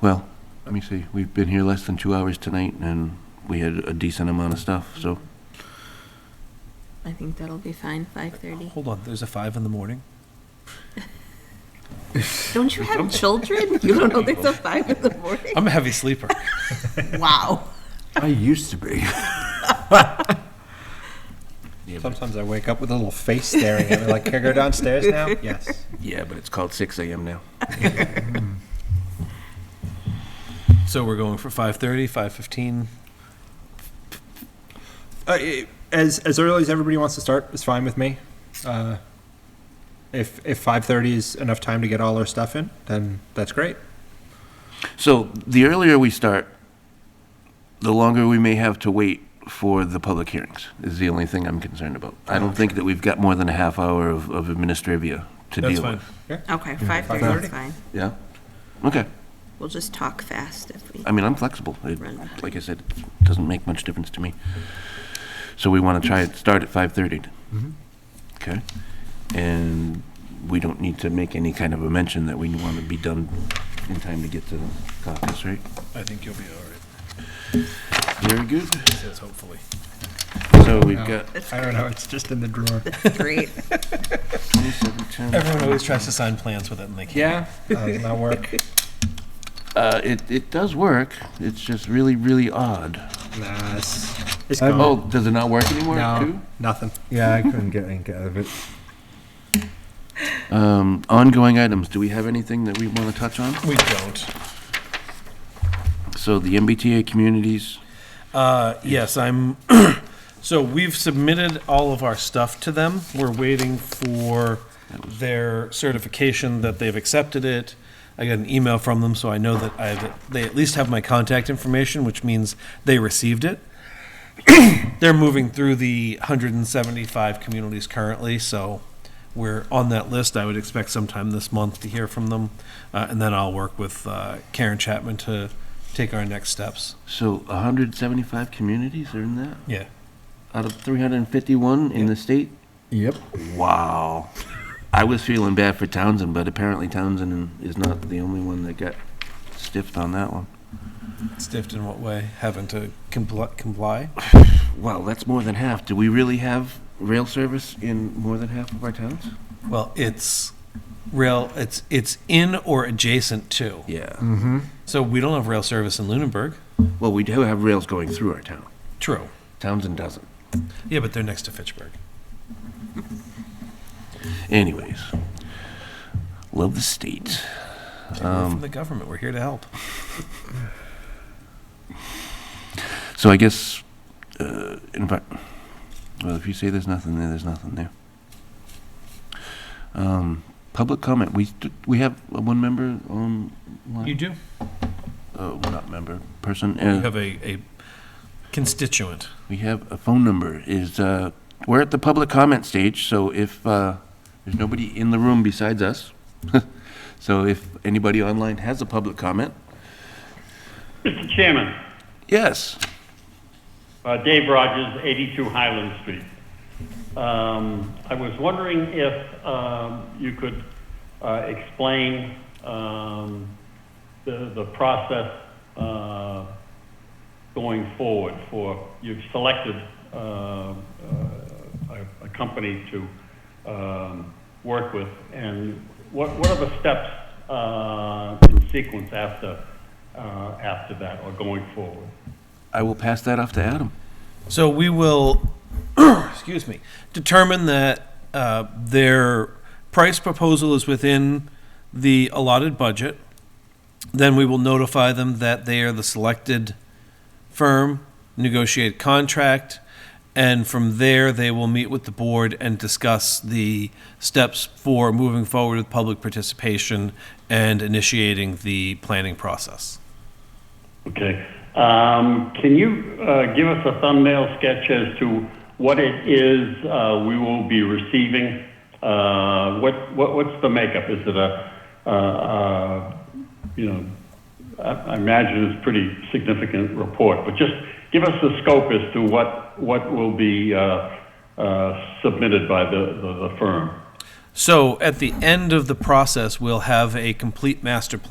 Well, let me see, we've been here less than two hours tonight, and we had a decent amount of stuff, so. I think that'll be fine, 5:30. Hold on, there's a five in the morning? Don't you have children? You don't know things till 5 in the morning? I'm a heavy sleeper. Wow. I used to be. Sometimes I wake up with a little face staring at me, like, can I go downstairs now? Yes. Yeah, but it's called six AM now. So we're going for 5:30, 5:15? Uh, it- as as early as everybody wants to start is fine with me. Uh, if if five thirty is enough time to get all our stuff in, then that's great. So the earlier we start, the longer we may have to wait for the public hearings, is the only thing I'm concerned about. I don't think that we've got more than a half hour of, of administrivia to deal with. Okay, 5:30 is fine. Yeah? Okay. We'll just talk fast if we, I mean, I'm flexible. It- Right. Like I said, it doesn't make much difference to me. So we want to try it, start at 5:30. Okay? And we don't need to make any kind of a mention that we want to be done in time to get to the caucus, right? I think you'll be all right, Very good. yes, hopefully. So we've Yeah. got I don't know. It's just in the drawer. great. 27, 10. Everyone always tries to sign plans with it and they can't. Yeah, that does not work. Uh, It, it does work. It's just really, really odd. Nah, it's, it's Um, gone. Oh, does it not work anymore, too? no, nothing. Yeah, I couldn't get in, get out of it. Um, Ongoing items, do we have anything that we want to touch on? We don't. So the MBTA communities, Uh, yes, I'm, so we've submitted all of our stuff to them. We're waiting for their certification that they've accepted it. I got an email from them, so I know that I, that they at least have my contact information, which means they received it. They're moving through the 175 communities currently, so we're on that list. I would expect sometime this month to hear from them. Uh, and then I'll work with, uh, Karen Chapman to take our next steps. so 175 communities are in that? Yeah. Out of 351 in the state? Yep. Wow. I was feeling bad for Townsend, but apparently Townsend is not the only one that got stiffed on that one. Stiffed in what way? Having to compl- comply? Well, that's more than half. Do we really have rail service in more than half of our towns? Well, it's rail. It's it's in or adjacent to. Yeah. So we don't have rail service in Lunenburg. Well, we do have rails going through our town. True. Townsend doesn't. Yeah, but they're next to Fitchburg. Anyways, love the state. Take it from the government, we're here to help. So I guess, uh, in fact, well, if you say there's nothing there, there's nothing there. Um, public comment. We st- we have uh, one member on. You do. Uh, not member person. You Uh, have a, a constituent. we have a phone number. Is uh, we're at the public comment stage. So if uh, there's nobody in the room besides us, so if anybody online has a public comment, Mr. Chairman, yes. uh, Dave Rogers, 82 Highland Street. Um, I was wondering if um, you could uh, explain um, the the process uh, going forward for, you've selected uh, uh, a a company to um, work with, and what what are the steps uh, in sequence after uh, after that or going forward? I will pass that off to Adam. So we will, excuse me, determine that uh, their price proposal is within the allotted budget. Then we will notify them that they are the selected firm, negotiate contract, and from there, they will meet with the board and discuss the steps for moving forward with public participation and initiating the planning process. Okay. Um, Can you uh, give us a thumbnail sketch as to what it is uh, we will be receiving? Uh, What what What's the makeup? Is it a, uh, uh, you know, I I imagine it's a pretty significant report, but just give us the scope as to what what will be uh, uh, submitted by the the the firm. So at the end of the process, we'll have a complete master plan.